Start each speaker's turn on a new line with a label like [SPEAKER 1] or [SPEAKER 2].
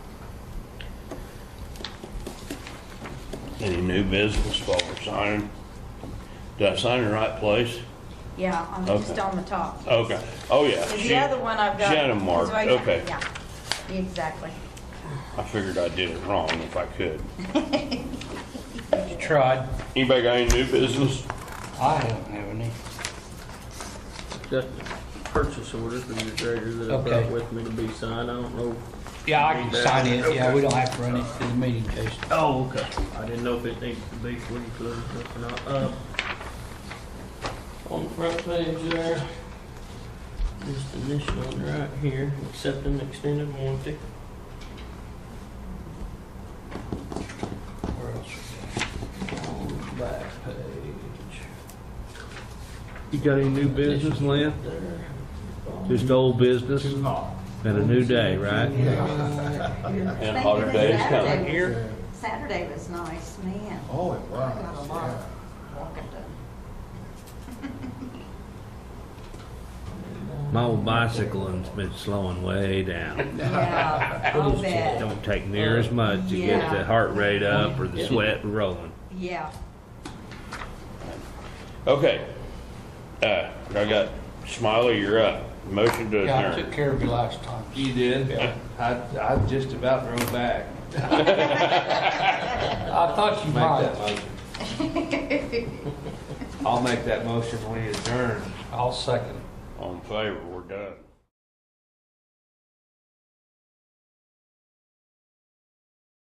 [SPEAKER 1] Any new business forward signing? Did I sign in the right place?
[SPEAKER 2] Yeah, I'm just
[SPEAKER 1] Okay.
[SPEAKER 2] on the top.
[SPEAKER 1] Okay, oh yeah.
[SPEAKER 2] Because
[SPEAKER 1] she-
[SPEAKER 2] the other one I've got.
[SPEAKER 1] She had them marked,
[SPEAKER 2] is right here.
[SPEAKER 1] okay.
[SPEAKER 2] Yeah, exactly.
[SPEAKER 1] I figured I did it wrong if I could.
[SPEAKER 3] Tried.
[SPEAKER 1] Anybody got any new business?
[SPEAKER 3] I haven't have any.
[SPEAKER 4] Got the purchase order from the treasurer that I
[SPEAKER 3] Okay.
[SPEAKER 4] brought with me to be signed, I don't know.
[SPEAKER 3] Yeah, I can sign it. Yeah, we don't have to run it to the meeting, Jason.
[SPEAKER 4] Oh, okay. I didn't know if it needs to be fully closed or not. Uh, On the front page there, just initial one right here, accepting extended warranty.
[SPEAKER 3] Where else?
[SPEAKER 4] On the back page.
[SPEAKER 5] You got any new business, Lynn?
[SPEAKER 4] There.
[SPEAKER 5] Just old business? And a new day, right?
[SPEAKER 1] And hotter days coming.
[SPEAKER 2] here. Saturday was nice, man.
[SPEAKER 6] Oh, it
[SPEAKER 2] I Got a
[SPEAKER 6] was,
[SPEAKER 2] lot
[SPEAKER 6] yeah.
[SPEAKER 2] of walking done.
[SPEAKER 5] My old bicycling's been slowing way down.
[SPEAKER 2] Yeah, I'll bet.
[SPEAKER 5] Don't take near as much to get the heart rate up or the sweat rolling.
[SPEAKER 2] Yeah.
[SPEAKER 1] Okay. Uh, I got Smiley, you're up. Motion to
[SPEAKER 3] Yeah, I took
[SPEAKER 1] adjourn.
[SPEAKER 3] care of you last time.
[SPEAKER 7] You did? I, I just about drove back.
[SPEAKER 3] I thought you
[SPEAKER 7] Make that
[SPEAKER 3] might.
[SPEAKER 7] motion. I'll make that motion when you adjourn.
[SPEAKER 3] I'll second.
[SPEAKER 1] On favor, we're done.